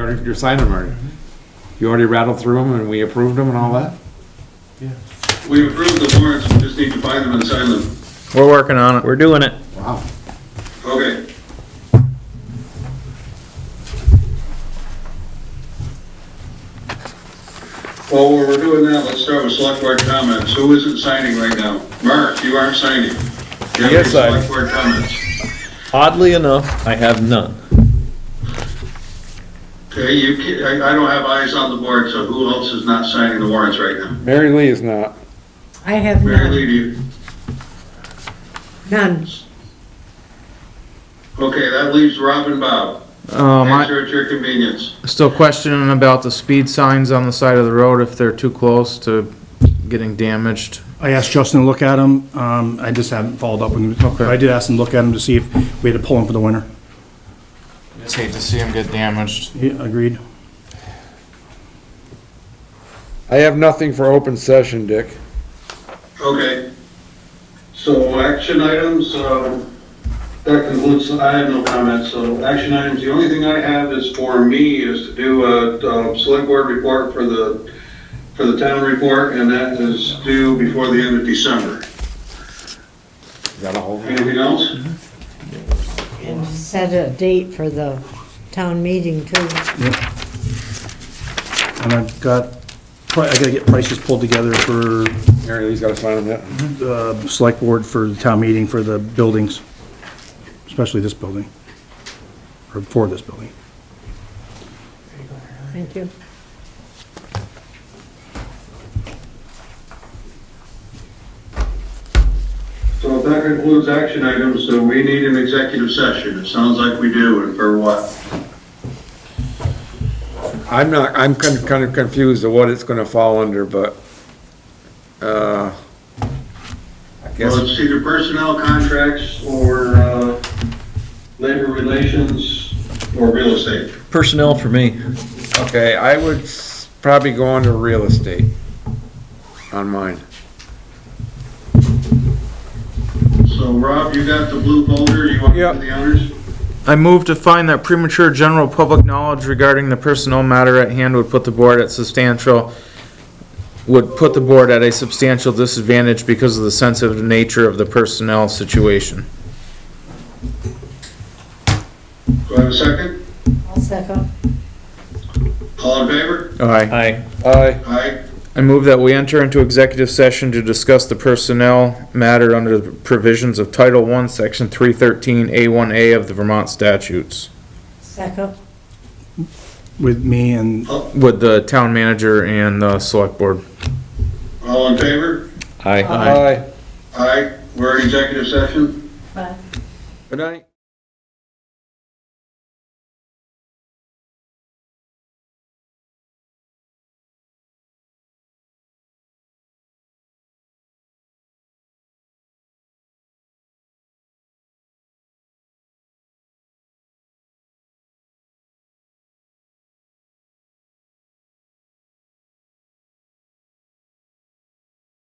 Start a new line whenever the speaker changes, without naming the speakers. already, you're signing them already. You already rattled through them and we approved them and all that?
We approved the warrants, we just need to find them and sign them.
We're working on it. We're doing it.
Wow.
Okay. Well, while we're doing that, let's start with select board comments. Who isn't signing right now? Mark, you aren't signing. Do you have any
Yes, I-
Select board comments.
Oddly enough, I have none.
Okay, you, ca- I, I don't have eyes on the board, so who else is not signing the warrants right now?
Mary Lee is not.
I have
Mary
none,
Lee, do you?
none.
Okay, that leaves Rob and Bob.
Um, I,
Answer at your convenience.
still questioning about the speed signs on the side of the road, if they're too close to getting damaged.
I asked Justin to look at them, um, I just haven't followed up with him, but I did ask him to look at them to see if we had to pull them for the winter.
Just hate to see them get damaged.
He agreed.
I have nothing for open session, Dick.
Okay. So action items, uh, that concludes, I have no comments, so action items, the only thing I have is for me is to do a, uh, select board report for the, for the town report, and that is due before the end of December.
Got a hold of it?
Anything else?
And set a date for the town meeting too.
And I've got, pri- I gotta get prices pulled together for,
Mary Lee's gotta sign them yet.
uh, select board for the town meeting for the buildings, especially this building, or for this building.
Thank you.
So if that concludes action items, so we need an executive session, it sounds like we do, and for what?
I'm not, I'm kind of, kind of confused of what it's gonna fall under, but, uh, I
Well,
guess,
it's either personnel contracts or, uh, labor relations or real estate.
Personnel for me.
okay, I would s- probably go under real estate on mine.
So Rob, you got the blue folder, you want to
Yep.
do the honors?
I move to find that premature general public knowledge regarding the personnel matter at hand would put the board at substantial, would put the board at a substantial disadvantage because of the sensitive nature of the personnel situation.
Do I have a second?
I'll second.
All in favor?
Aye.
Aye.
Aye.
Aye.
I move that we enter into executive session to discuss the personnel matter under the provisions of Title I, Section 313A1A of the Vermont statutes
Second.
With me and
with the town manager and the select board.
All in favor?
Aye.
Aye.
Aye. We're in executive session.
Bye.
Good night.